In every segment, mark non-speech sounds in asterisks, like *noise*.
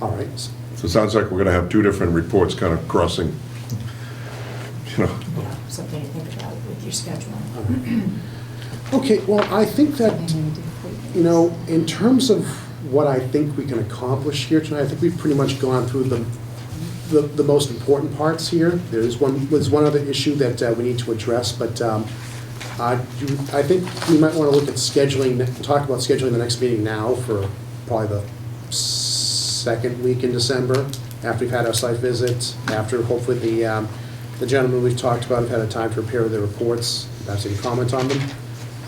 All right, s- So it sounds like we're gonna have two different reports kind of crossing, you know, Yeah, something to think about with your schedule. okay, well, I think that, Anything to do with- you know, in terms of what I think we can accomplish here tonight, I think we've pretty much gone through the, the, the most important parts here. There is one, there's one other issue that uh, we need to address, but, um, I, do- I think we might wanna look at scheduling, talk about scheduling the next meeting now for probably the second week in December, after we've had our site visit, after hopefully the, um, the gentlemen we've talked about have had a time to prepare their reports, perhaps any comment on them.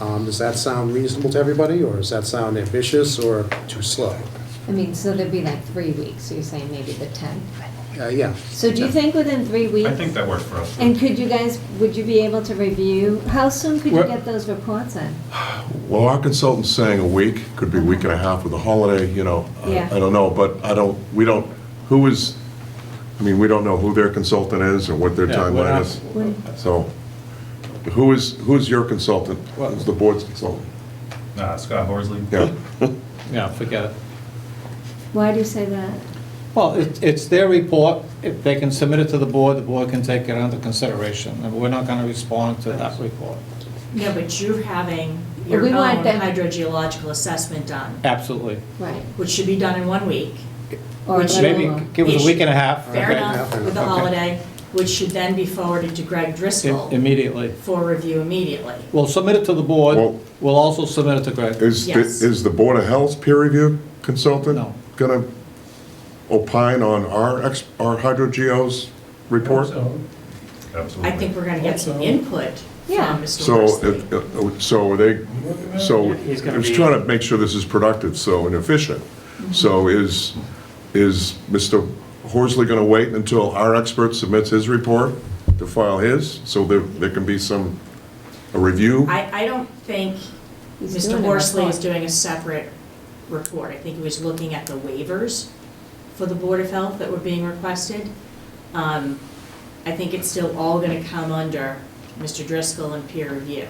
Um, does that sound reasonable to everybody, or does that sound ambitious or too slow? I mean, so there'd be like three weeks, so you're saying maybe the 10th. Uh, yeah. So do you think within three weeks? I think that works for us. And could you guys, would you be able to review, how soon could you Well- get those reports in? well, our consultant's saying a week, could be a week and a half with a holiday, you know. I- Yeah. I don't know, but I don't, we don't, who is, I mean, we don't know who their consultant is or what their Yeah, we're timeline not- is. When- So, who is, who's your consultant? Well- Who's the board's consultant? Nah, Uh, Scott Horsley. *laughs* Yeah. Yeah, forget it. Why do you say that? Well, it- it's their report, if they can submit it to the board, the board can take it under consideration, and we're not going to respond to that report. No, but you're having your We own want them- hydrogeological assessment done, Absolutely. Right. which should be done in one week. Or Which let Maybe alone- give us a week and a half. Fair okay, enough, with the Okay. holiday, which should then be forwarded to Greg i- Driscoll Immediately. for review immediately. We'll submit it to the board, Well- we'll also submit it to Greg. Is, the- Yes. is the Board of Health's peer review consultant? No. Gonna opine on our, ex- our hydrogeo's report? I Absolutely. think we're gonna get some input Yeah. from Mr. So, Horsley. it- it- so are they, so, He's I gonna was be- trying to make sure this is productive, so, and efficient. So is, is Mr. Horsley gonna wait until our expert submits his report to file his? So there, there can be some, a review? I, I don't think He's Mr. doing it, Horsley I was thought. doing a separate report. I think he was looking at the waivers for the Board of Health that were being requested. Um, I think it's still all going to come under Mr. Driscoll and peer review.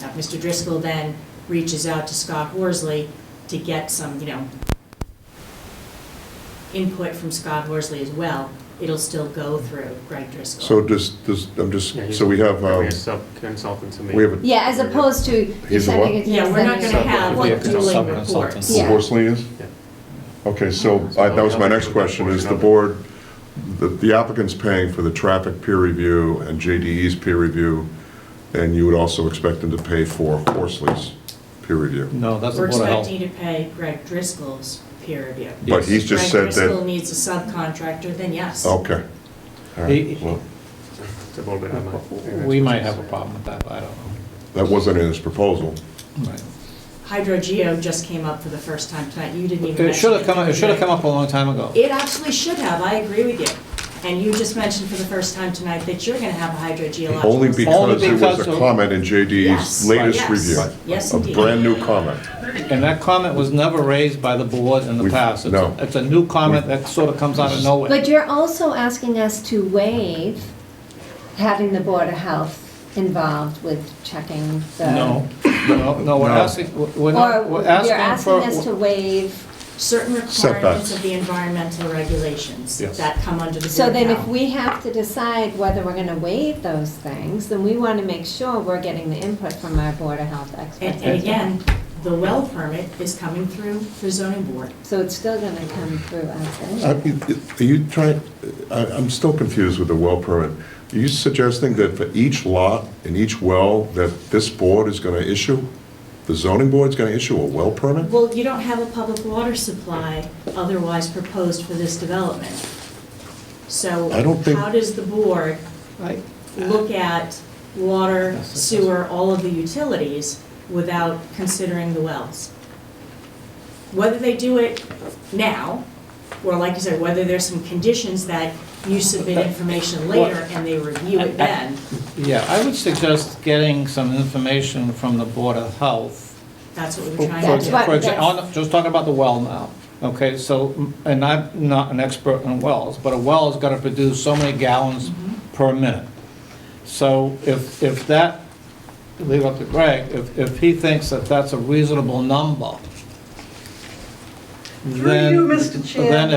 Now, if Mr. Driscoll then reaches out to Scott Horsley to get some, you know, input from Scott Horsley as well, it'll still go through Greg Driscoll. So does, does, I'm just, Yeah, he's- so we have, We um, have sub-consultants in the. we have a Yeah, as opposed to you He's a what? sending it to. Yeah, us, we're not going then to you- have Yeah, because it's dueling sub-consultant. reports. Yeah. Horsley is? Yeah. Okay, so I- that was my next question, is the board, the- the applicant's paying for the traffic peer review and JDE's peer review, and you would also expect them to pay for Horsley's peer review? No, that's the We're board of health. expecting to pay Greg Driscoll's peer review. But he's just said Greg Driscoll that, Oh. needs a subcontractor, then yes. okay. All He- right, well, It's a little bit of my- We might have a problem with that, I don't know. that wasn't in his proposal. Right. Hydrogeo just came up for the first time tonight, you didn't even mention it. It should have come, it should have come up a long time ago. It absolutely should have, I agree with you. And you just mentioned for the first time tonight that you're gonna have a hydrogeological. Only because there was because a of- comment in JDE's Yes, latest yes, review. yes, A indeed. brand-new comment. And that comment was never raised by the board in the We've- past. It's a- no. It's a new comment that sort of comes out of nowhere. But you're also asking us to waive having the Board of Health involved with checking the. No, no, no, we're No. asking, we're Or not, you're we're asking asking for. us to waive Certain requirements Setbacks. of the environmental regulations Yes. that come under the So Board of then if Health. we have to decide whether we're gonna waive those things, then we wanna make sure we're getting the input from our Board of Health experts. And, and again, the well permit is coming through the zoning board. So it's still gonna come through us I- anyway. Are Uh, you trying, I- I'm still confused with the well permit. Are you suggesting that for each lot and each well that this board is going to issue, the zoning board's going to issue a well permit? Well, you don't have a public water supply otherwise proposed for this development. So I don't think- how does the board I- look at water, That's the sewer, all of the utilities without considering the wells? Whether they do it now, or like you said, whether there's some conditions that you submit information later and they review it then, Yeah, I would suggest getting some information from the Board of Health. that's what For- we're for trying That's to do. what- exa- for exa- that's- on- Just talking about the well now, okay, so, and I'm not an expert in wells, but a well is gonna produce so many gallons per minute. So if, if that, leave up to Greg, if, if he thinks that that's a reasonable number, Through then. you, Mr. Chair. Then